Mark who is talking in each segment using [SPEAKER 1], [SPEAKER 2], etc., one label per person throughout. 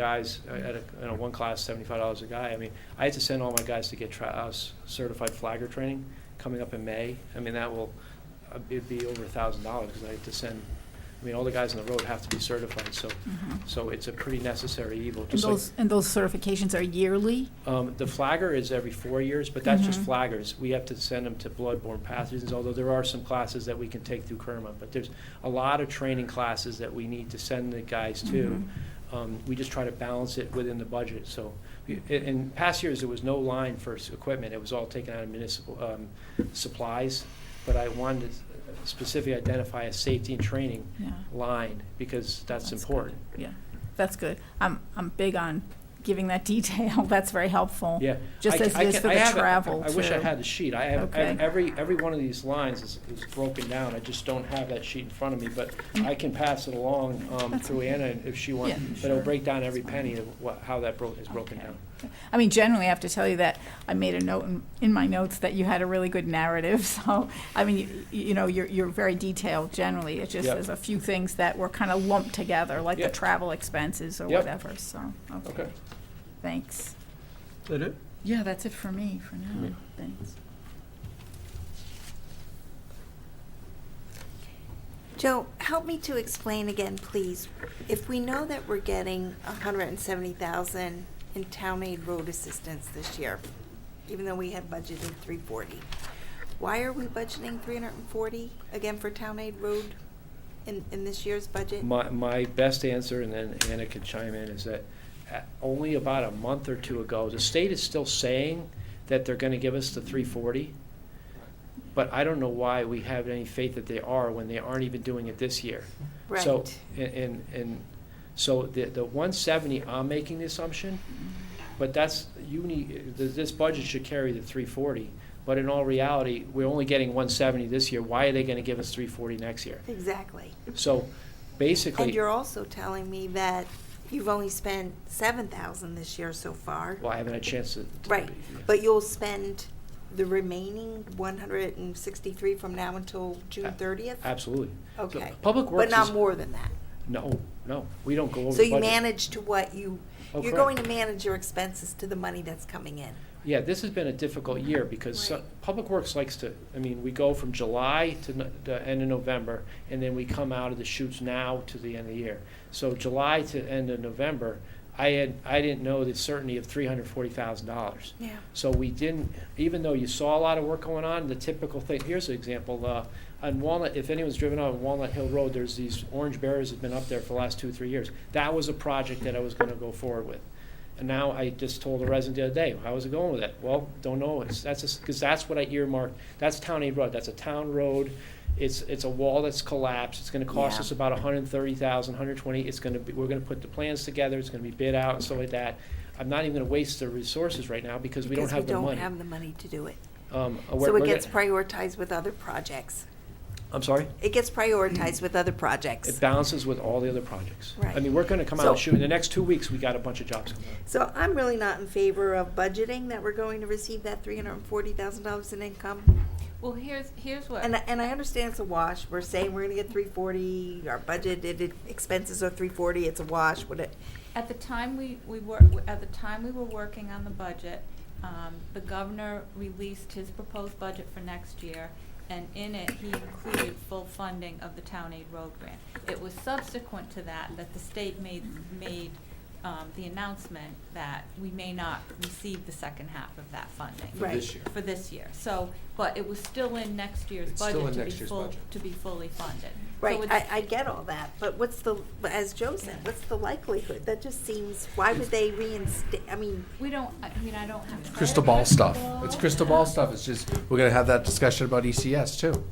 [SPEAKER 1] guys uh, at a, you know, one class, seventy-five dollars a guy. I mean, I had to send all my guys to get tri, uh, s- certified flagger training coming up in May. I mean, that will, uh, it'd be over a thousand dollars because I had to send, I mean, all the guys on the road have to be certified, so,
[SPEAKER 2] Mhm.
[SPEAKER 1] so it's a pretty necessary evil,
[SPEAKER 2] And
[SPEAKER 1] just like.
[SPEAKER 2] those, and those certifications are yearly?
[SPEAKER 1] Um, the flagger is every four years, but that's just
[SPEAKER 2] Mhm.
[SPEAKER 1] flaggers. We have to send them to bloodborne pathogens, although there are some classes that we can take through Kerma. But there's a lot of training classes that we need to send the guys
[SPEAKER 2] Mm-hmm.
[SPEAKER 1] to. Um, we just try to balance it within the budget, so. i- In past years, there was no line for s- equipment. It was all taken out of municipal, um, supplies. But I wanted to specifically identify a safety and training
[SPEAKER 2] Yeah.
[SPEAKER 1] line, because that's
[SPEAKER 2] good.
[SPEAKER 1] important.
[SPEAKER 2] Yeah, that's good. I'm, I'm big on giving that detail. That's very helpful.
[SPEAKER 1] Yeah.
[SPEAKER 2] Just
[SPEAKER 1] I-
[SPEAKER 2] as
[SPEAKER 1] I
[SPEAKER 2] it is
[SPEAKER 1] can-
[SPEAKER 2] for
[SPEAKER 1] I
[SPEAKER 2] the
[SPEAKER 1] have a-
[SPEAKER 2] travel,
[SPEAKER 1] I wish I
[SPEAKER 2] too.
[SPEAKER 1] had the sheet. I have, I have
[SPEAKER 2] Okay.
[SPEAKER 1] every, every one of these lines is, is broken down. I just don't have that sheet in front of me, but I can pass it along, um,
[SPEAKER 2] That's
[SPEAKER 1] through
[SPEAKER 2] okay.
[SPEAKER 1] Anna if she wants.
[SPEAKER 2] Yeah,
[SPEAKER 1] But it'll
[SPEAKER 2] sure.
[SPEAKER 1] break down
[SPEAKER 2] That's
[SPEAKER 1] every
[SPEAKER 2] fine.
[SPEAKER 1] penny of what, how that broke, is broken
[SPEAKER 2] Okay.
[SPEAKER 1] down.
[SPEAKER 2] I mean, generally, I have to tell you that I made a note in, in my notes that you had a really good narrative. So, I mean, you, you know, you're, you're very detailed generally. It just,
[SPEAKER 1] Yep.
[SPEAKER 2] there's a few things that were kind of lumped together, like the
[SPEAKER 1] Yep.
[SPEAKER 2] travel expenses or
[SPEAKER 1] Yep.
[SPEAKER 2] whatever, so, okay.
[SPEAKER 1] Okay.
[SPEAKER 2] Thanks.
[SPEAKER 3] That it?
[SPEAKER 2] Yeah, that's it for me for
[SPEAKER 1] Yeah.
[SPEAKER 2] now. Thanks.
[SPEAKER 4] Joe, help me to explain again, please. If we know that we're getting a hundred and seventy thousand in town aid road assistance this year, even though we had budgeted three forty, why are we budgeting three hundred and forty again for town aid road in, in this year's budget?
[SPEAKER 1] My, my best answer, and then Anna could chime in, is that uh, only about a month or two ago, the state is still saying that they're gonna give us the three forty. But I don't know why we have any faith that they are when they aren't even doing it this year. So,
[SPEAKER 4] Right.
[SPEAKER 1] and- and, and, so the, the one seventy, I'm making the assumption, but that's, you need, th- this budget should carry the three forty. But in all reality, we're only getting one seventy this year, why are they gonna give us three forty next year?
[SPEAKER 4] Exactly.
[SPEAKER 1] So,
[SPEAKER 4] And
[SPEAKER 1] basically,
[SPEAKER 4] you're also telling me that you've only spent seven thousand this year so far.
[SPEAKER 1] well, I haven't had a chance to. to-
[SPEAKER 4] Right,
[SPEAKER 1] yeah.
[SPEAKER 4] but you'll spend the remaining one hundred and sixty-three from now until June thirtieth?
[SPEAKER 1] Absolutely. So
[SPEAKER 4] Okay.
[SPEAKER 1] Public Works
[SPEAKER 4] But not
[SPEAKER 1] is-
[SPEAKER 4] more than that?
[SPEAKER 1] No, no, we don't go over
[SPEAKER 4] So
[SPEAKER 1] the budget.
[SPEAKER 4] you manage to what you,
[SPEAKER 1] Oh,
[SPEAKER 4] you're
[SPEAKER 1] correct.
[SPEAKER 4] going to manage your expenses to the money that's coming in?
[SPEAKER 1] Yeah, this has been a difficult year because so-
[SPEAKER 4] Right.
[SPEAKER 1] Public Works likes to, I mean, we go from July to no- the end of November, and then we come out of the shoots now to the end of the year. So July to end of November, I had, I didn't know the certainty of three hundred forty thousand dollars.
[SPEAKER 4] Yeah.
[SPEAKER 1] So we didn't, even though you saw a lot of work going on, the typical thing, here's an example, uh, on Walnut, if anyone's driven on Walnut Hill Road, there's these orange barriers that have been up there for the last two, three years. That was a project that I was gonna go forward with. And now I just told a resident the other day, how's it going with it? Well, don't know, it's, that's, because that's what I earmarked, that's town aid road, that's a town road. It's, it's a wall that's collapsed, it's gonna cost
[SPEAKER 4] Yeah.
[SPEAKER 1] us about $130,000, 120. it's gonna be, we're gonna put the plans together, it's gonna be bid out and stuff like that. I'm not even gonna waste the resources right now because we don't have the money.
[SPEAKER 4] Because we don't have the money to do it.
[SPEAKER 1] Um, we're-
[SPEAKER 4] So
[SPEAKER 1] we're
[SPEAKER 4] it gets
[SPEAKER 1] gonna-
[SPEAKER 4] prioritized with other projects.
[SPEAKER 1] I'm sorry?
[SPEAKER 4] It gets prioritized with other
[SPEAKER 1] It
[SPEAKER 4] projects.
[SPEAKER 1] balances with all the other projects. I
[SPEAKER 4] Right.
[SPEAKER 1] mean, we're gonna come out and
[SPEAKER 4] So-
[SPEAKER 1] shoot, in the next two weeks, we got a bunch of jobs coming out.
[SPEAKER 4] So I'm really not in favor of budgeting that we're going to receive that three hundred and forty thousand dollars in income.
[SPEAKER 5] Well, here's, here's what.
[SPEAKER 4] And, I- and I understand it's a wash. We're saying we're gonna get three forty, our budgeted expenses are three forty, it's a wash, what it,
[SPEAKER 5] At the time we, we were, at the time we were working on the budget, um, the governor released his proposed budget for next year, and in it, he included full funding of the town aid road grant. It was subsequent to that, that the state made, made, um, the announcement that we may not receive the second half of that funding.
[SPEAKER 4] For this Right.
[SPEAKER 6] year.
[SPEAKER 5] For this year, so, but it was still in next year's
[SPEAKER 6] It's still
[SPEAKER 5] budget
[SPEAKER 6] in
[SPEAKER 5] to be
[SPEAKER 6] next year's
[SPEAKER 5] full,
[SPEAKER 6] budget.
[SPEAKER 5] to be fully funded. So
[SPEAKER 4] Right,
[SPEAKER 5] it's-
[SPEAKER 4] I, I get all that, but what's the, but as Joe said, what's the likelihood? That just seems, why would they reinstate, I mean,
[SPEAKER 5] We don't, I mean, I don't have.
[SPEAKER 6] Crystal ball stuff. It's crystal ball stuff. It's just, we're gonna have that discussion about ECS too.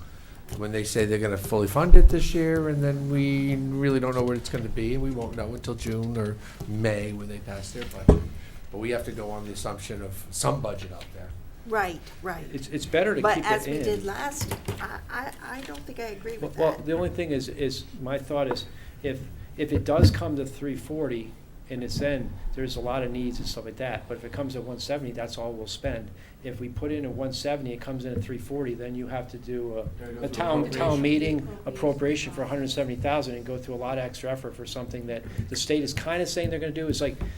[SPEAKER 6] When they say they're gonna fully fund it this year, and then we really don't know what it's gonna be, and we won't know until June or May when they pass their budget. But we have to go on the assumption of some budget out there.
[SPEAKER 4] right, right.
[SPEAKER 1] It's, it's better to keep it
[SPEAKER 4] But
[SPEAKER 1] in.
[SPEAKER 4] as we did last, I, I, I don't think I agree
[SPEAKER 1] Well-
[SPEAKER 4] with
[SPEAKER 1] Well,
[SPEAKER 4] that.
[SPEAKER 1] the only thing is, is, my thought is, if, if it does come to three forty, in its end, there's a lot of needs and stuff like that, but if it comes at one seventy, that's all we'll spend. If we put in at one seventy, it comes in at three forty, then you have to do a, a town, town meeting appropriation for hundred and seventy thousand and go through a lot of extra effort for something that the state is kinda saying they're gonna do, it's like,